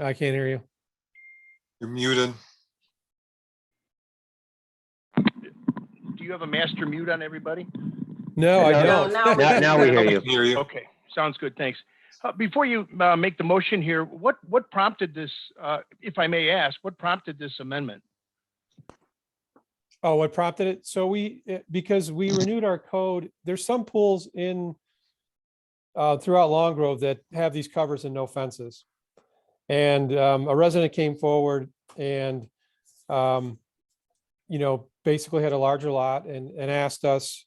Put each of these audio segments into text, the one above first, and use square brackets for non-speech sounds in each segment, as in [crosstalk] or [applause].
I can't hear you. You're muted. Do you have a master mute on everybody? No, I No, don't. no, Now, now we hear you. Hear you. Okay, sounds good, thanks. Uh, Before you uh, make the motion here, what, what prompted this, uh, if I may ask, what prompted this amendment? [laughs] Oh, what prompted it? So we, eh, because we renewed our code, there's some pools in uh, throughout Long Grove that have these covers and no fences. And um, a resident came forward and um, you know, basically had a larger lot and, and asked us,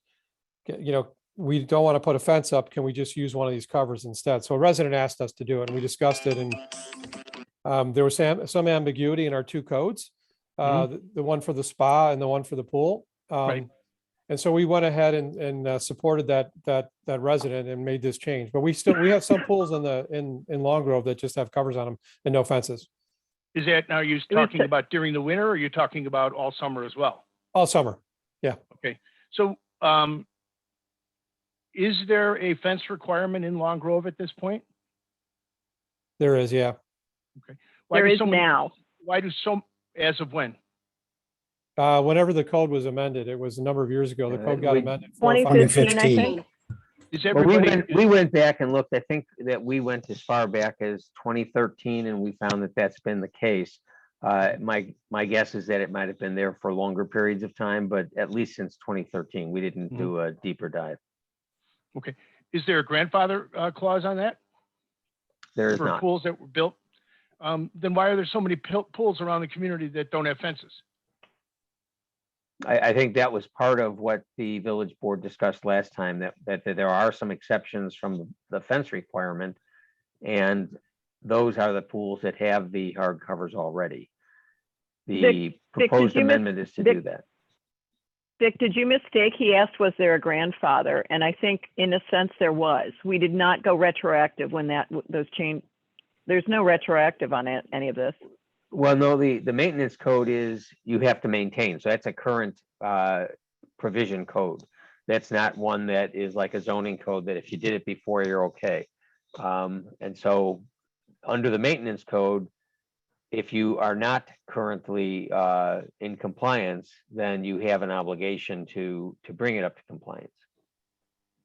"Ca- you know, we don't want to put a fence up. Can we just use one of these covers instead? So a resident asked us to do it and we discussed it and um, there was some, some ambiguity in our two codes uh, the, the one for the spa and the one for the pool. Mm-hmm. Right. Um, and so we went ahead and, and uh, supported that, that, that resident and made this change, but we still, we have [coughs] some pools in the, in, in Long Grove that just have covers on them and no fences Is that, now you're was talking the- about during the winter, or you're talking about all summer as well? all summer. So um, is there a fence requirement in Long Grove at this point? There is, yeah. Why [laughs] There do is so many- now. Why do so, as of when? Uh, whenever the code was amended, it was a number of years ago, the Uh, code got we- amended. four or five years- 2015, I 2015. think. Is Well, we everybody, went, we went back and looked, I think that we went as far back as twenty thirteen and we found that that's been the case. Uh, my, my guess is that it might have been there for longer periods of time, but at least since twenty thirteen, we didn't Hmm. Mhm. do a deeper dive. is there a grandfather uh, clause on that? There is For not. pools that were built? Um, Then why are there so many pil- pools around the community that don't have fences? I, I think that was part of what the village board discussed last time, that, that that there are some exceptions from the fence requirement. And those are the pools that have the hard covers already. The did proposed you miss- amendment is to Vic, do that. Dick, did you mistake? He asked, was there a grandfather? And I think in a sense there was. We did not go retroactive when that, those change, there's no retroactive on it, any of this. Well, no, the, the maintenance code is you have to maintain, so that's a current uh, provision code. That's not one that is like a zoning code that if you did it before, you're okay. Um, And so, under the maintenance code, if you are not currently uh, in compliance, then you have an obligation to, to bring it up to compliance.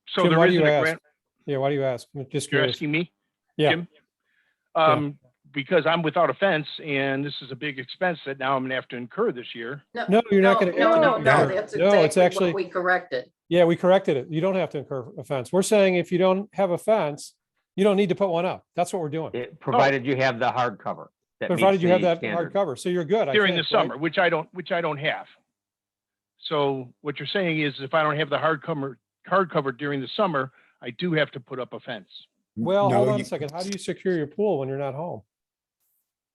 So Jim, there why do isn't you a ask? grant, Yeah, why do you ask? I'm Just you're curious. asking me? Yeah. Jim? Um, because I'm without a fence and this is a big expense that now I'm gonna have to incur this year. No, you're not gonna- No, no, no, No, that's no, it's exactly actually- what we corrected. Yeah, we corrected it. You don't have to incur a fence. We're saying if you don't have a fence, you don't need to put one up. That's what we're doing. It- Provided you have the hard cover. that Oh. meets Provided you have the that standard. hard cover. So you're good. I during the think, right? summer, which I don't, which I don't have. So what you're saying is if I don't have the hardcover, hardcover during the summer, I do have to put up a fence. Well, No, hold on a you- second. How do you secure your pool when you're not home?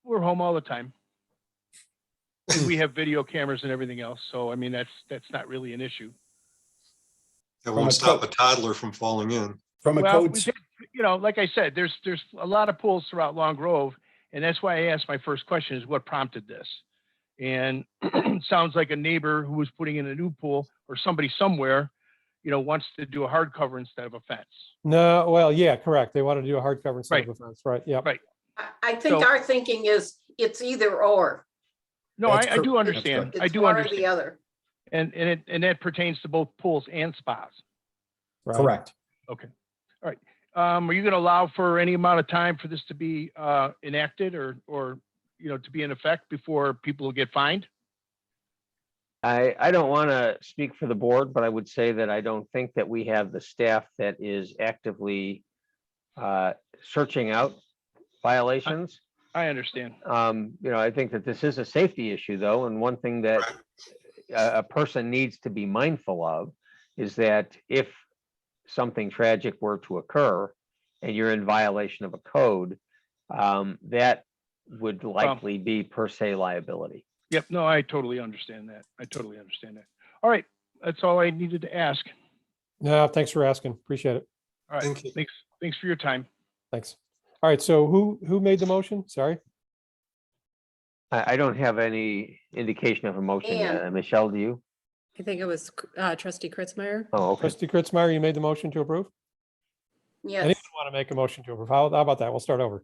We're home all the time. And [clears throat] We have video cameras and everything else, so I mean, that's, that's not really an issue. That won't stop a toddler from falling in. From Well, we've had- you know, like I said, there's, there's a lot of pools throughout Long Grove, and that's why I asked my first question is what prompted this? And [clears throat] it sounds like a neighbor who was putting in a new pool or somebody somewhere, you know, wants to do a hard cover instead of a fence. No, well, yeah, correct. They wanted to do a hard cover instead Right. of a fence, right? Yeah. Right. I think so- our thinking is it's either or. No, I, That's I cor- do that's understand. I It's do one or the understand. other. And, and it, and that pertains to both pools and spas. Correct. Um, are you going to allow for any amount of time for this to be, uh, enacted or, or, you know, to be in effect before people will get fined? I, I don't want to speak for the board, but I would say that I don't think that we have the staff that is actively uh, searching out violations. I understand. Um, You know, I think that this is a safety issue though, and one thing that a, a person needs to be mindful of is that if something tragic were to occur and you're in violation of a code, um, that would likely be per se liability. Yep, no, I totally understand that. I totally understand that. All right, that's all I needed to ask. No, thanks for asking. Appreciate it. All right, Thank you. thanks, thanks for your time. Thanks. All right. So who, who made the motion? Sorry. I, I don't have any indication of a motion. And- Uh, Michelle, do you? I think it was uh, trustee Kritzmeyer. Oh, okay. Trustee Kritzmeyer, you made the motion to approve? Yes. Anyone want to make a motion to approve? How how about that? We'll start over.